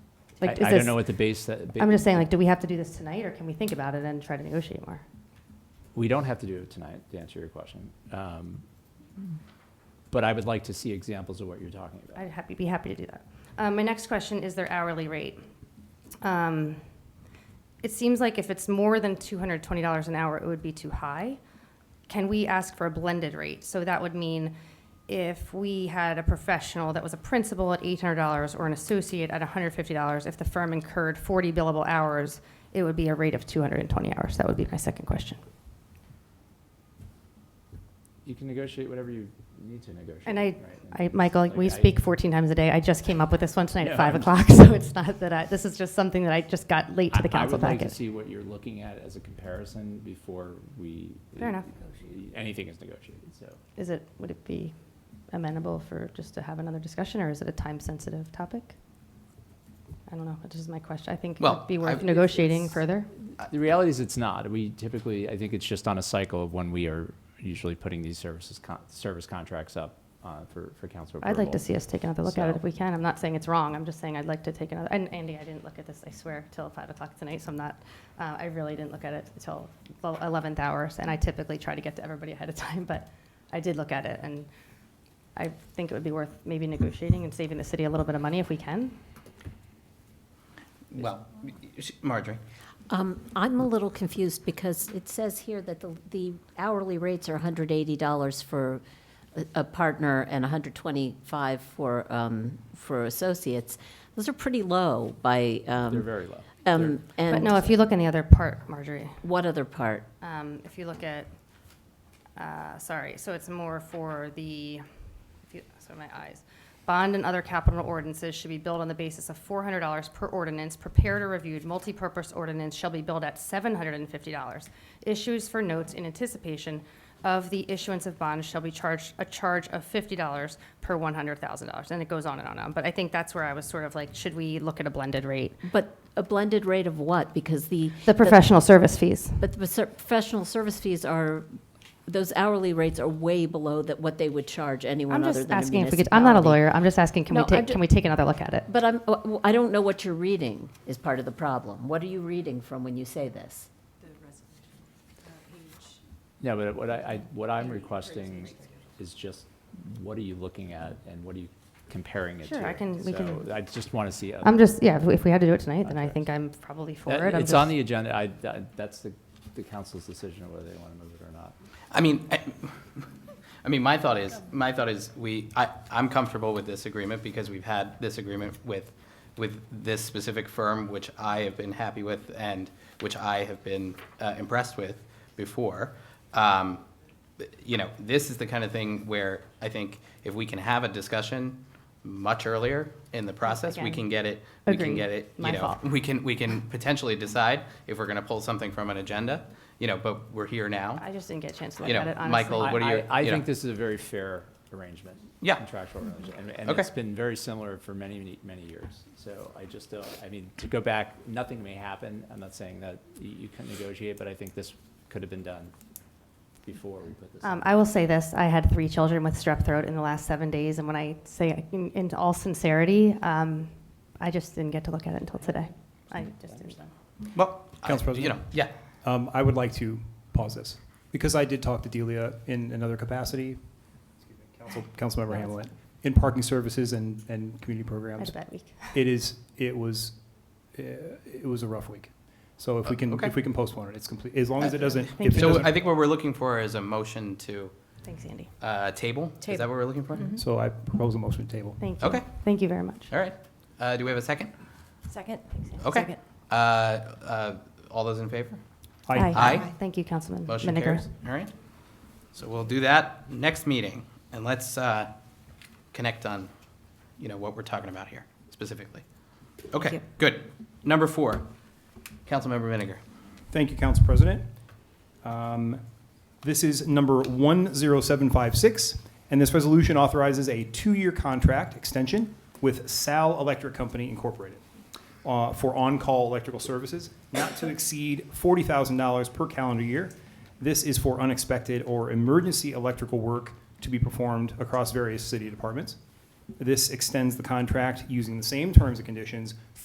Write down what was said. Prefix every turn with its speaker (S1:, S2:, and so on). S1: Like,
S2: I,
S1: is
S2: I don't
S1: this-
S2: know what the base, that-
S1: I'm just saying, like, do we have to do this tonight, or can we think about it and try to negotiate more?
S2: we don't have to do it tonight, to answer your question. Um, But I would like to see examples of what you're talking about.
S1: I'd happy, be happy to do that. Um, my next question is their hourly rate. Um, it seems like if it's more than two hundred twenty dollars an hour, it would be too high. Can we ask for a blended rate? So that would mean if we had a professional that was a principal at eight hundred dollars or an associate at one hundred fifty dollars, if the firm incurred forty billable hours, it would be a rate of two hundred and twenty hours. That would be my second question.
S2: You can negotiate whatever you need to negotiate.
S1: And I-
S2: right?
S1: I, Michael,
S2: Like,
S1: we
S2: I-
S1: speak 14 times a day. I just came up with this one tonight
S2: No,
S1: at 5
S2: I'm-
S1: o'clock, so it's not that I, this is just something that I just got late to the
S2: I-
S1: council
S2: I would like to
S1: packet.
S2: see what you're looking at as a comparison before we.
S1: Fair enough.
S2: Anything is negotiated, so.
S1: Is it, would it be amenable for just to have another discussion, or is it a time-sensitive topic? I don't know, That's just my question. I think it
S3: Well,
S1: would be
S3: I-
S1: worth
S3: if
S1: negotiating
S3: it's-
S1: further.
S2: Uh, The reality is it's not. We typically, I think it's just on a cycle of when we are usually putting these services, con- service contracts up uh, for, for council approval.
S1: I'd like to see us take another look at it
S2: So-
S1: if we can. I'm not saying it's wrong, I'm just saying I'd like to take another, and Andy, I didn't look at this, I swear, till five o'clock tonight, so I'm not, uh, I really didn't look at it till the eleventh hours, and I typically try to get to everybody ahead of time, but I did look at it, and I think it would be worth maybe negotiating and saving the city a little bit of money if we can.
S3: Well, sh- Marjorie,
S4: Um, I'm a little confused because it says here that the, the hourly rates are hundred eighty dollars for a- a partner and hundred twenty-five for, um, for associates. Those are pretty low by,
S2: They're
S4: um,
S2: very low. They're-
S4: um,
S1: But no,
S4: and
S1: if you look in the other part, Marjorie,
S4: what other part?
S1: um, if you look at, uh, sorry, so it's more for the, if you- sorry, my eyes. Bond and other capital ordinances should be billed on the basis of four hundred dollars per ordinance. Prepared or reviewed multipurpose ordinance shall be billed at seven hundred and fifty dollars. Issues for notes in anticipation of the issuance of bonds shall be charged, a charge of fifty dollars per one hundred thousand dollars. And it goes on and on and on. But I think that's where I was sort of like, should we look at a blended rate?
S4: But a blended rate of what? Because the.
S1: The professional service fees.
S4: But the ser- professional service fees are, those hourly rates are way below that, what they would charge anyone
S1: I'm
S4: other
S1: just
S4: than a
S1: asking if we could, I'm not a
S4: municipality.
S1: lawyer. I'm just asking, can we
S4: No, I'm
S1: take,
S4: ju-
S1: can we take another look at it?
S4: But I'm, uh, w- I don't know what you're reading is part of the problem. What are you reading from when you say this?
S2: No, but what I, I, what I'm requesting is just, what are you looking at and what are you comparing it to?
S1: Sure, I can- we can-
S2: So I just want to see. other-
S1: I'm just, yeah, if we- if we had to do it tonight, then I
S2: Okay.
S1: think I'm probably for
S2: That-
S1: it. I'm
S2: It's on
S1: just-
S2: the agenda. I, I- that's the, the council's decision whether they want to move it or not.
S3: I mean, I, I mean, my thought is, my thought is, we, I, I'm comfortable with this agreement because we've had this agreement with, with this specific firm, which I have been happy with and which I have been uh, impressed with before. Um, you know, this is the kind of thing where I think if we can have a discussion much earlier in the process, we
S1: Again.
S3: can get it, we can
S1: Agreed.
S3: get it, you
S1: My
S3: know,
S1: fault.
S3: we can, we can potentially decide if we're gonna pull something from an agenda, you know, but we're here now.
S1: I just didn't get a chance to
S3: You
S1: look at
S3: know,
S1: it, honestly.
S3: Michael- Well, what are
S2: I-
S3: your-
S2: I, I
S3: you know.
S2: think this is a very fair arrangement.
S3: Yeah.
S2: Contractual arrangement, and, and
S3: Okay.
S2: it's been very similar for many, many, many years. So I just don't, I mean, to go back, nothing may happen. I'm not saying that you, you couldn't negotiate, but I think this could have been done before we put this. in.
S1: Um, I will say this, I had three children with strep throat in the last seven days, and when I say, in, in all sincerity, um, I just didn't get to look at it until today. I just didn't.
S3: Well,
S5: Council
S3: I- you
S5: President?
S3: know, yeah,
S5: Um, I would like to pause this, because I did talk to Delia in another capacity, excuse me, Council, Councilmember
S1: No,
S5: Hamlin,
S1: that's
S5: in parking services and, and community
S1: I had
S5: programs.
S1: a bad week.
S5: It is, it was, uh, it was a rough week. So if we can,
S3: Okay.
S5: if we can postpone it, it's complete, as long as it doesn't,
S1: Thank
S5: if it
S1: you.
S3: so I
S5: doesn't.
S3: think what we're looking for is a motion to
S1: Thanks, Andy.
S3: uh, table? Is that
S4: Table.
S3: what we're looking for?
S6: Mm-hmm.
S5: So I propose a motion to table.
S1: Thank you.
S3: Okay.
S1: Thank you very much.
S3: All right, Uh, do we have a second?
S6: Second.
S3: Okay.
S6: Second.
S3: Uh, uh, All those in favor?
S5: I
S3: Aye.
S1: Thank you, Councilman
S3: Motion
S1: Miniger.
S3: carries, all right. So we'll do that next meeting, and let's uh, connect on, you know, what we're talking about here specifically. Okay,
S6: you.
S3: good. Number four, Councilmember Vinegar.
S5: Thank you, Council President. Um, This is number 10756, and this resolution authorizes a two-year contract extension with Sal Electric Company Incorporated uh, for on-call electrical services, not to exceed $40,000 per calendar year. This is for unexpected or emergency electrical work to be performed across various city departments. This extends the contract using the same terms and conditions